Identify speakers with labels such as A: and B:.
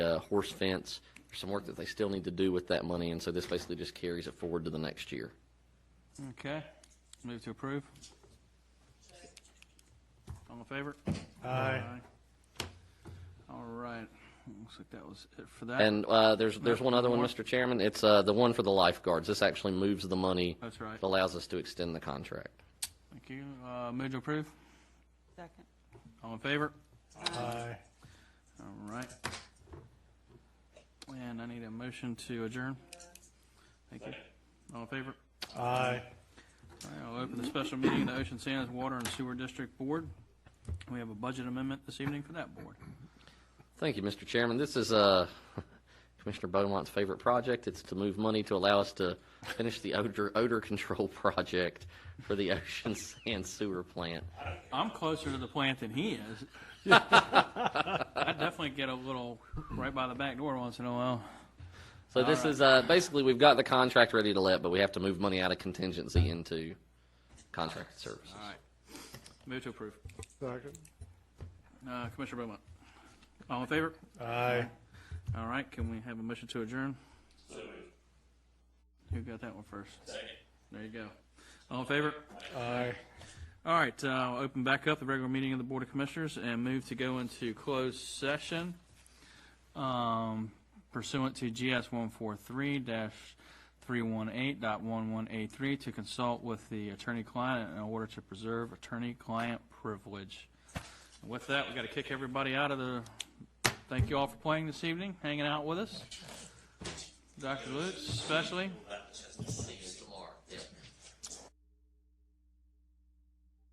A: uh, horse fence. There's some work that they still need to do with that money, and so this basically just carries it forward to the next year.
B: Okay, move to approve. All in favor? Aye. All right, looks like that was it for that.
A: And uh, there's there's one other one,
B: More?
A: Mr. Chairman. It's uh, the one for the lifeguards. This actually moves the money.
B: That's right.
A: It allows us to extend the contract.
B: Thank you. Uh, move to approve.
C: Second.
B: All in favor?
D: Aye.
B: All right. And I need a motion to adjourn. Thank you. All in favor?
D: Aye.
B: All right, I'll open the special meeting of the Ocean Sands Water and Sewer District Board. We have a budget amendment this evening for that board.
A: Thank you, Mr. Chairman. This is uh, Commissioner Beaumont's favorite project. It's to move money to allow us to finish the odor odor control project for the Ocean Sand Sewer Plant.
B: I'm closer to the plant than he is. I definitely get a little right by the back door once in a while.
A: So this is uh, basically we've got the contract ready to let, but we have to move money out of contingency into contracted services.
B: All right. Move to approve.
D: Second.
B: Uh, Commissioner Beaumont. All in favor?
D: Aye.
B: All right, can we have a motion to adjourn? Who got that one first? Second. There you go. All in favor?
D: Aye.
B: All right, uh, I'll open back up the regular meeting of the Board of Commissioners and move to go into closed session um, pursuant to GS 143-318.11A3 to consult with the attorney-client in order to preserve attorney-client privilege. With that, we got to kick everybody out of the, thank you all for playing this evening, hanging out with us. Dr. Lutz especially.